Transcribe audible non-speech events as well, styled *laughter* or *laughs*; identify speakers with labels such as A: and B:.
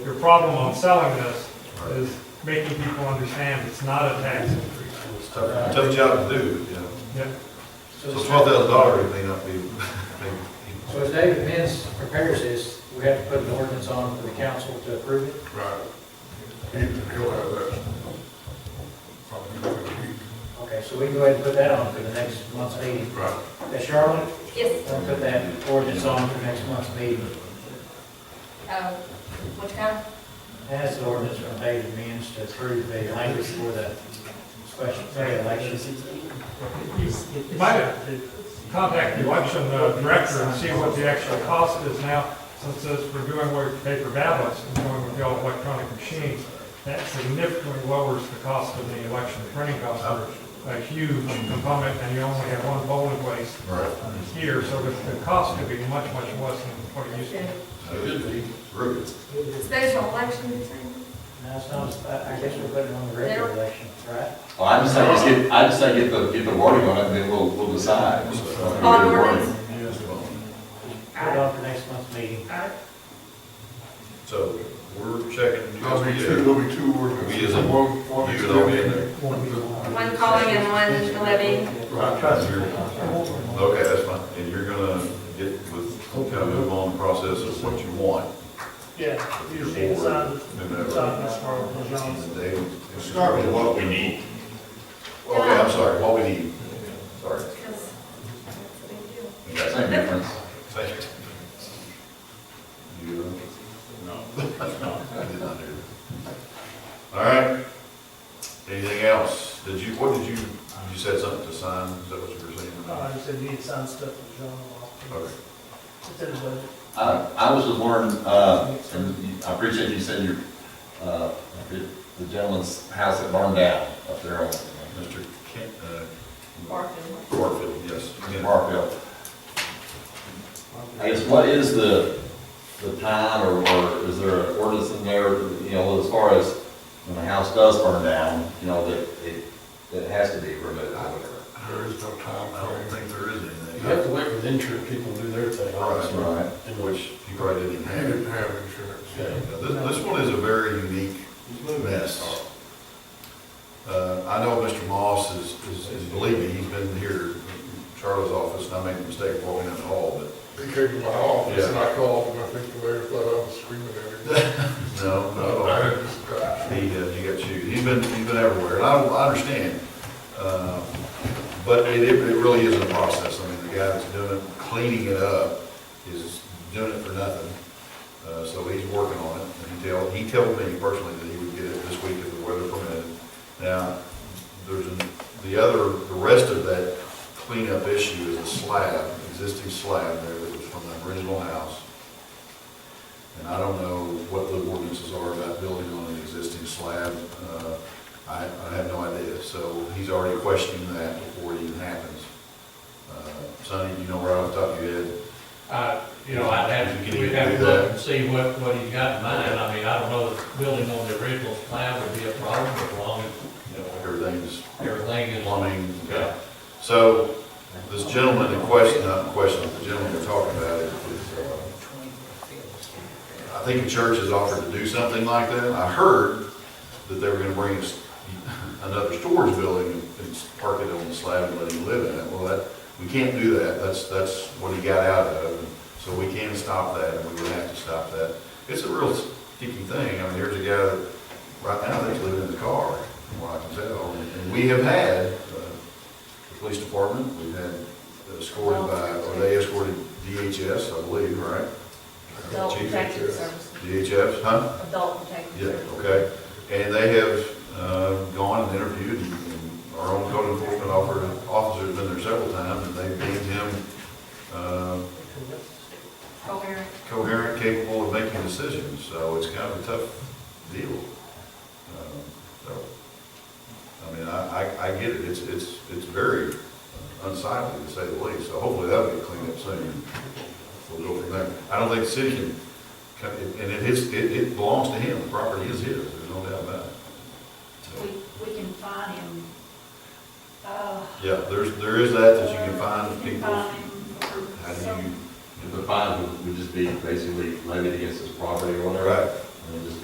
A: Your problem on selling this is making people understand it's not a tax increase.
B: It's tough, tough job to do, you know.
A: Yep.
C: So
B: So
C: as-
B: twelve thousand dollars may not be, *laughs*
C: So as David Mins prepares this, we have to put an ordinance on for the council to approve it?
D: Right. He, he'll have that. Probably within a week.
C: Okay, so we can go ahead and put that on for the next month's meeting.
D: Right.
C: Uh, Charlotte,
E: Yes,
C: we'll put that ordinance on for next month's meeting.
E: uh, what kind?
C: That's the ordinance from David Mins to approve the language for the special May election.
A: You might contact the election uh, director and see what the actual cost is now, since this, we're doing with paper ballots and going with the all electronic machines. That significantly lowers the cost of the election printing cost, a huge component, and you only have one polling place
B: Right.
A: here, so the, the cost could be much, much less than what it used to be.
B: Rude.
E: Special election, you're saying?
C: Now, it's not, I I guess we're putting it on the regular election, right?
F: Well, I just say, just get, I just say get the, get the wording on it, and then we'll, we'll decide.
E: On ordinance?
C: Put it on for next month's meeting.
B: So we're checking.
D: There'll be two, there'll be two ordinances.
B: We as a-
D: One- one
B: you
D: is
B: and all be in
D: levying.
B: there.
E: One calling and one levying.
D: Right.
B: Okay, that's fine. And you're gonna get with, kind of move on the process of what you want.
G: Yeah,
B: with your
G: usually it's
B: board,
G: on, it's
B: whomever.
G: on this part of the
B: And the
G: zone.
B: day-
D: Start with what we need.
B: Okay, Oh, I'm sorry, what we need. Sorry.
E: Because that's a big deal.
B: Okay.
F: Same difference.
B: Thank you. You? No. I did not do that. All right. Anything else? Did you, what did you, you said something to sign, is that what you were saying?
G: I Uh, said need sign stuff for John Wall.
B: Okay.
G: It's in the budget.
F: I, I was just wondering, uh, and you- I appreciate you said your, uh, the gentleman's house that burned down up there on
B: Mr. Kent, uh,
E: Barfield.
B: Barfield, yes.
F: in Markville. I guess what is the, the time, or, or is there an ordinance in there, you know, as far as when a house does burn down, you know, that it, that it has to be removed or whatever?
D: There is no time.
B: I don't think there is
H: You have
B: anything.
H: to wait for the insurance people to do their thing, obviously.
F: Right.
H: And
B: Which
H: which,
B: you probably didn't
D: He
B: have.
D: didn't have insurance.
H: yeah.
B: Now, This, this one is a very unique mess. Uh, I know Mr. Moss is, is, is believing, he's been here in Charlie's office, and I made the mistake of walking in the hall, but
D: He came to my office
B: Yeah.
D: and I called him, I think the mayor thought I was screaming at him.
B: no, no.
D: I had this guy.
B: He, uh, he got chewed. He's been, he's been everywhere, and I, I understand. Uh, But it, it it really is a process. I mean, the guy that's doing it, cleaning it up, is doing it for nothing. Uh, so he's working on it, and he tell, he told me personally that he would get it this week if the weather permitted. Now, there's, an- the other, the rest of that cleanup issue is a slab, existing slab there that was from the original house. And I don't know what the ordinances are about building on an existing slab. Uh, I, I have no idea. So he's already questioning that before it even happens. Uh, Sonny, you know right off the top of your head?
I: Uh, You know, I'd have to, we'd have to look and see what, what he's got in mind. I mean, I don't know if building on the original plan would be a problem as long as, you know,
B: Everything's
I: everything is.
B: plumbing.
I: Yeah.
B: So this gentleman in question, not in question, the gentleman we're talking about is, uh, I think the church has offered to do something like that. I heard that they were gonna bring us another storage building and- and park it on the slab and let him live in it. Well, that, we can't do that. That's, that's what he got out of. And So we can stop that and we would have to stop that. It's a real sticky thing. I mean, here's a guy that right now that's living in the car, from what I can tell. And we have had, uh, the police department, we've had uh, escorted by, or they escorted DHS, I believe, right?
E: Adult
B: Chief,
E: protective services.
B: DHS, huh?
E: Adult protective
B: Yeah,
E: services.
B: okay. And they have uh, gone and interviewed, and our own code enforcement officer, officer's been there several times, and they've deemed him uh,
E: Coherent.
B: coherent, capable of making decisions, so it's kind of a tough deal. Um, So, I mean, I, I, I get it, it's, it's, it's very unsightly to say the least, so hopefully that'll get cleaned up soon. We'll go from there. I don't think the city can, can- and it is, it, it belongs to him, the property is his, there's no doubt about
J: We,
B: it. So,
J: we can find him, uh.
B: Yeah, there's, there is that, that you can find
J: we can
B: people,
J: find
B: how
J: him for
B: do you,
J: some-
F: The fine would- would just be basically levied against his property or whatever.
B: right,
F: I mean, just